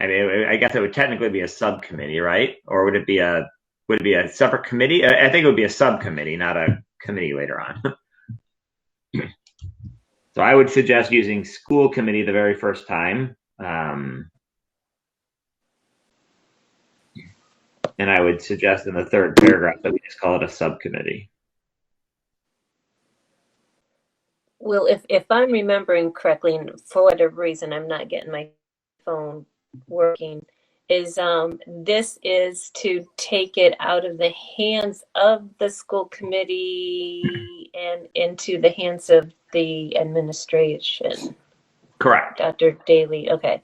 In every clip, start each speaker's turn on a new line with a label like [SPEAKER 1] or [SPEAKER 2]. [SPEAKER 1] I mean, I- I guess it would technically be a subcommittee, right? Or would it be a, would it be a separate committee? I, I think it would be a subcommittee, not a committee later on. So I would suggest using school committee the very first time. Um, and I would suggest in the third paragraph that we just call it a subcommittee.
[SPEAKER 2] Well, if, if I'm remembering correctly, and for whatever reason, I'm not getting my phone working, is um, this is to take it out of the hands of the school committee and into the hands of the administration.
[SPEAKER 1] Correct.
[SPEAKER 2] Dr. Daly, okay.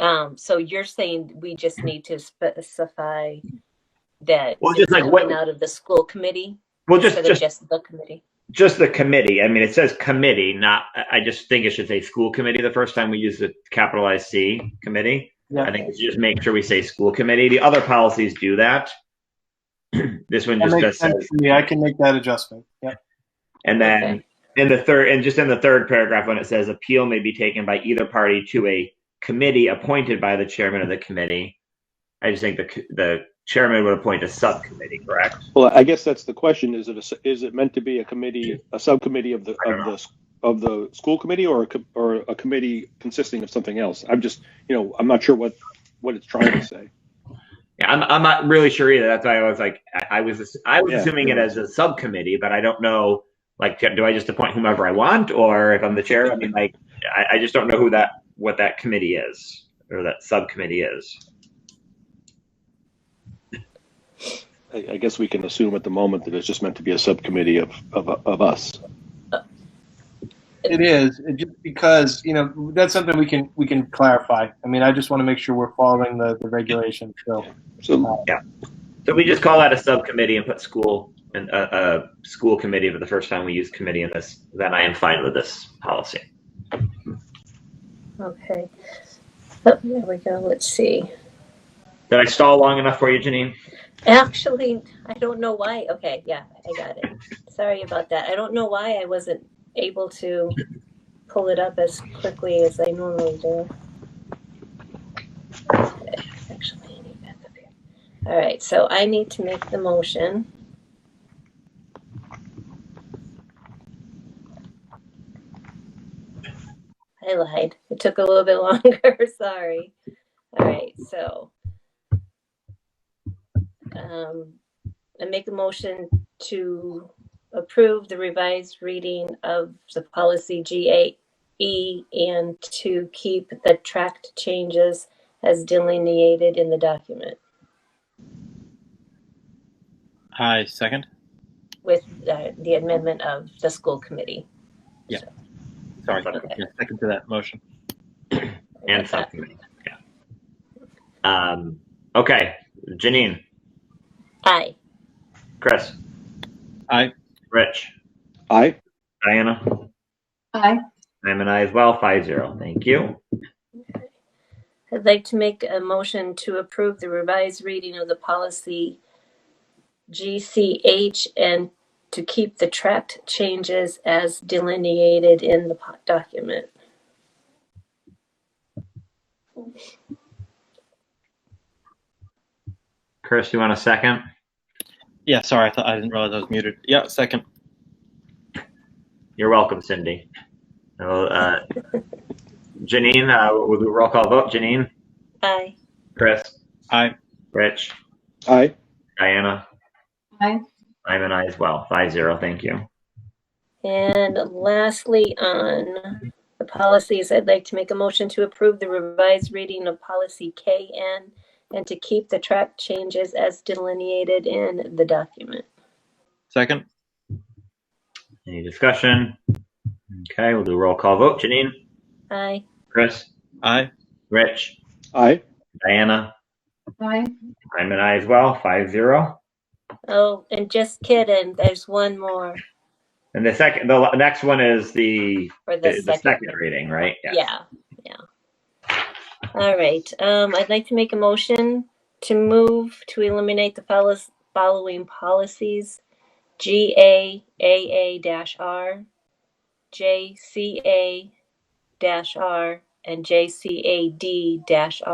[SPEAKER 2] Um, so you're saying we just need to specify that
[SPEAKER 1] Well, just like what-
[SPEAKER 2] coming out of the school committee
[SPEAKER 1] Well, just,
[SPEAKER 2] instead
[SPEAKER 1] just,
[SPEAKER 2] of just the committee?
[SPEAKER 1] just the committee. I mean, it says committee, not, I I just think it should say school committee the first time we use the capitalized C committee. I
[SPEAKER 3] Yeah,
[SPEAKER 1] think we should just make sure we say school committee. The other policies do that. This one
[SPEAKER 3] that
[SPEAKER 1] just
[SPEAKER 3] makes
[SPEAKER 1] does,
[SPEAKER 3] sense to me. I can make that adjustment. Yeah,
[SPEAKER 1] and then in the third, and just in the third paragraph, when it says appeal may be taken by either party to a committee appointed by the chairman of the committee. I just think the, c- the chairman would appoint a subcommittee, correct?
[SPEAKER 4] Well, I guess that's the question. Is it, a- is it meant to be a committee, a subcommittee of the,
[SPEAKER 1] I don't
[SPEAKER 4] of the, of the school committee or a, co- or a committee consisting of something else? I'm just, you know, I'm not sure what, what it's trying to say.
[SPEAKER 1] Yeah, I'm, I'm not really sure either. That's why I was like, I, I was, I was
[SPEAKER 4] Yeah.
[SPEAKER 1] assuming it as a subcommittee, but I don't know. Like, do I just appoint whomever I want, or if I'm the chair? I mean, like, I, I just don't know who that, what that committee is, or that subcommittee is.
[SPEAKER 4] I, I guess we can assume at the moment that it's just meant to be a subcommittee of, of, of us.
[SPEAKER 3] it is. It just because you know that's something we can we can clarify. I mean, I just want to make sure we're following the, the regulations. So Uh,
[SPEAKER 4] So,
[SPEAKER 1] So we just call that a subcommittee and put school and a uh, uh, school committee. But the first time we use committee in this, then I am fine with this policy.
[SPEAKER 2] Okay. Oh, there we go. Let's see.
[SPEAKER 1] Did I stall long enough for you, Janine?
[SPEAKER 2] Actually, I don't know why. Okay, yeah, I got it. Sorry about that. I don't know why I wasn't able to pull it up as quickly as I normally do. Actually, I need that up here. All right, so I need to make the motion. I lied. It took a little bit longer. Sorry. All right, so um, I make a motion to approve the revised reading of the policy GAE and to keep the tracked changes as delineated in the document
[SPEAKER 5] I second.
[SPEAKER 2] with uh, the amendment of the school committee.
[SPEAKER 5] Sorry,
[SPEAKER 2] Okay.
[SPEAKER 5] yeah, second to that motion.
[SPEAKER 1] And subcommittee. Yeah. Um. Okay, Janine,
[SPEAKER 2] Aye.
[SPEAKER 1] Chris,
[SPEAKER 5] Aye.
[SPEAKER 1] Rich.
[SPEAKER 4] I,
[SPEAKER 1] Diana?
[SPEAKER 6] Aye.
[SPEAKER 1] I'm an aye as well, five zero. Thank you.
[SPEAKER 2] I'd like to make a motion to approve the revised reading of the policy GCH and to keep the tracked changes as delineated in the po- document.
[SPEAKER 1] Chris, you want a second?
[SPEAKER 5] Yeah, sorry, I thought I didn't realize I was muted. Yeah, second.
[SPEAKER 1] You're welcome, Cindy. Uh, Janine, uh, we'll do a roll call vote. Janine,
[SPEAKER 2] Aye.
[SPEAKER 1] Chris,
[SPEAKER 5] I
[SPEAKER 1] Rich,
[SPEAKER 4] I,
[SPEAKER 1] Diana?
[SPEAKER 6] Aye.
[SPEAKER 1] I'm an aye as well, five zero. Thank you.
[SPEAKER 2] And lastly, on the policies, I'd like to make a motion to approve the revised reading of policy KN and to keep the track changes as delineated in the document.
[SPEAKER 5] second.
[SPEAKER 1] Any discussion? Okay, we'll do a roll call vote. Janine,
[SPEAKER 2] Aye.
[SPEAKER 1] Chris,
[SPEAKER 5] I
[SPEAKER 1] Rich,
[SPEAKER 4] I,
[SPEAKER 1] Diana?
[SPEAKER 6] Aye.
[SPEAKER 1] I'm an aye as well, five zero.
[SPEAKER 2] Oh, and just kidding, there's one more
[SPEAKER 1] And the second, the la- next one is the,
[SPEAKER 2] for
[SPEAKER 1] the
[SPEAKER 2] the
[SPEAKER 1] the
[SPEAKER 2] second.
[SPEAKER 1] second reading, right?
[SPEAKER 2] Yeah, yeah. All right, um, I'd like to make a motion to move to eliminate the follows- following policies. G A A A dash R, J C A dash R, and J C A D dash R.